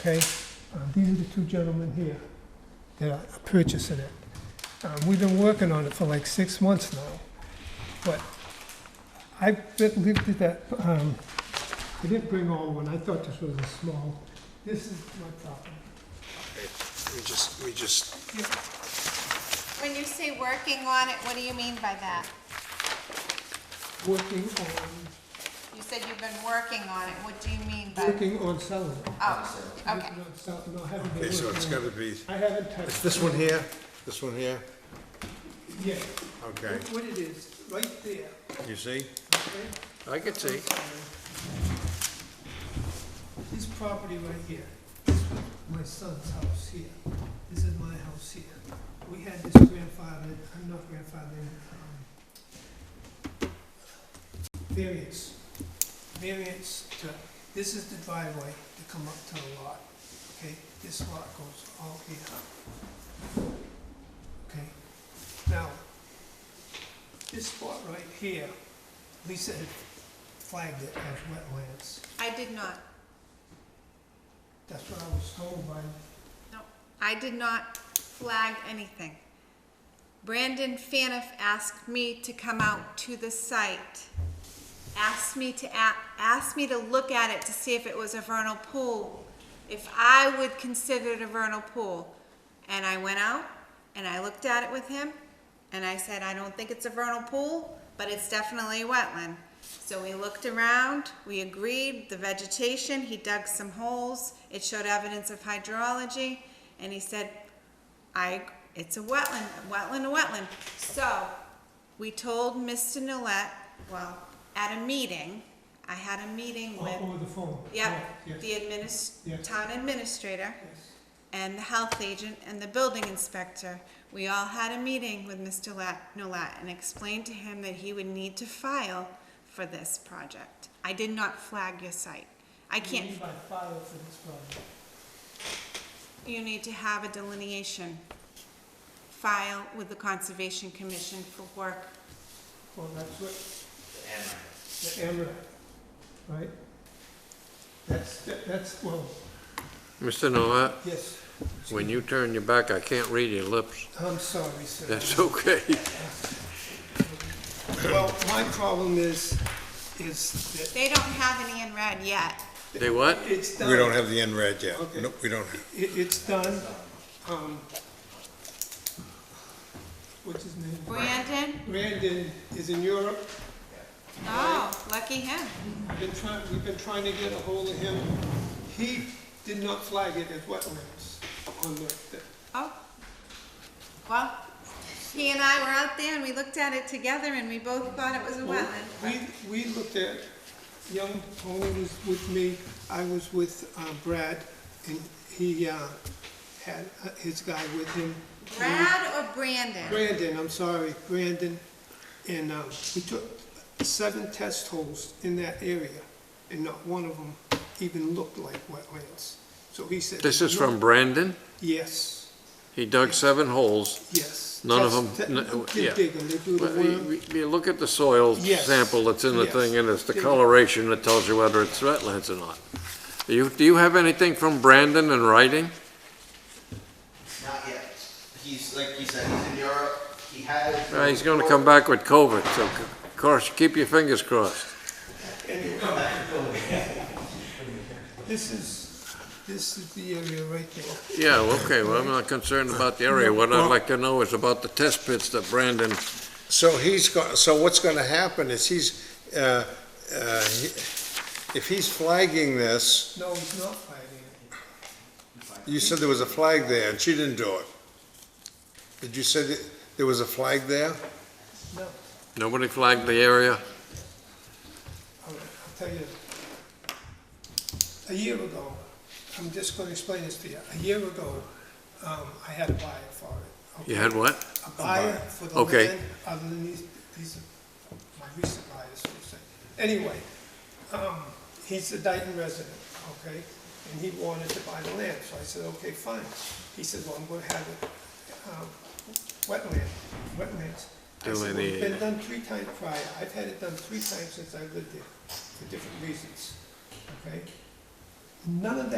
okay? Um, These are the two gentlemen here that are purchasing it. Um, We've been working on it for like six months now, but I've been- lived at that, um, I didn't bring all one, I thought this was a small, this is my property. We just, we just, When you say working on it, what do you mean by that? working on, You said you've been working on it, what do you mean by? working on selling it. Oh, okay. Working on sell- no, I haven't been okay, so working it's on gotta be, it. I haven't touched. it's this one here, this one here, Yeah. okay, What it is, right there, you see? okay? I can see. This property right here, this was my son's house here, this is my house here. We had this grandfathered, I'm not grandfathered, um, variance, variance to, this is the driveway to come up to the lot, okay? This lot goes all here, okay? Now, this spot right here, Lisa had flagged it as wetlands. I did not, That's what I was told by, no, I did not flag anything. Brandon Faniff asked me to come out to the site, asked me to, a- asked me to look at it to see if it was a vernal pool, if I would consider it a vernal pool. And I went out and I looked at it with him and I said, I don't think it's a vernal pool, but it's definitely a wetland. So we looked around, we agreed, the vegetation, he dug some holes, it showed evidence of hydrology, and he said, I, it's a wetland, a wetland, a wetland. So, we told Mr. Nolet, well, at a meeting, I had a meeting with, over the phone. yep, Yes, the adminis, Yes. town administrator yes. and the health agent and the building inspector. We all had a meeting with Mr. Lat- Nolat and explained to him that he would need to file for this project. I did not flag your site. I can't, You need my file for this problem. you need to have a delineation. File with the Conservation Commission for work. Well, that's what, the emerald, right? That's, that- that's, well, Mr. Nolat, yes, when you turn your back, I can't read your lips. I'm sorry, sir. That's okay. Well, my problem is, is They don't have any in red yet. They what? that it's done. We don't have the end red yet. Okay. Nope, we don't. have- It, it's done, um, what's his name? Brandon? Brandon is in Europe. Oh, lucky him. Been trying, we've been trying to get a hold of him. He did not flag it as wetlands on the, the- Oh, well, he and I were out there and we looked at it together and we both thought it was a wetland. We, we looked at, young Tony was with me, I was with uh, Brad, and he uh, had uh, his guy with him. Brad or Brandon? Brandon, I'm sorry, Brandon, and um, we took seven test holes in that area, and not one of them even looked like wetlands. So he said. This is "No." from Brandon. Yes, He dug seven holes. yes. None of Test- them- te- no, they yeah. dig 'em, they do the Well, You worm. you- you look at the soil Yes. sample that's in the Yes. thing, and it's the coloration that tells you whether it's wetlands or not. Do you, do you have anything from Brandon in writing? Not yet. He's, like you said, he's in Europe. He has. Uh, He's gonna come back with COVID, so of course, keep your fingers crossed. This is, this is the area right there. Yeah, well, okay, well, I'm not concerned about the area. What I'd like to know is about the test pits that Brandon So he's go, so what's gonna happen is he's, uh, uh, he- if he's flagging this, No, he's not fighting it. you said there was a flag there and she didn't do it. Did you say that there was a flag there? No, Nobody flagged the area? all right, I'll tell you. A year ago, I'm just gonna explain this to you. A year ago, um, I had a buyer for it. okay? You had what? A buyer for the Okay. land, other than these, these are my recent buyers, so to say. Anyway, um, he's a Dayton resident, okay? And he wanted to buy the land, so I said, okay, fine. He said, well, I'm gonna have it, um, wetland, wetlands. I said, well, it's been Delineated. done three times prior, I've had it done three times since I lived there, for different reasons, okay? None of that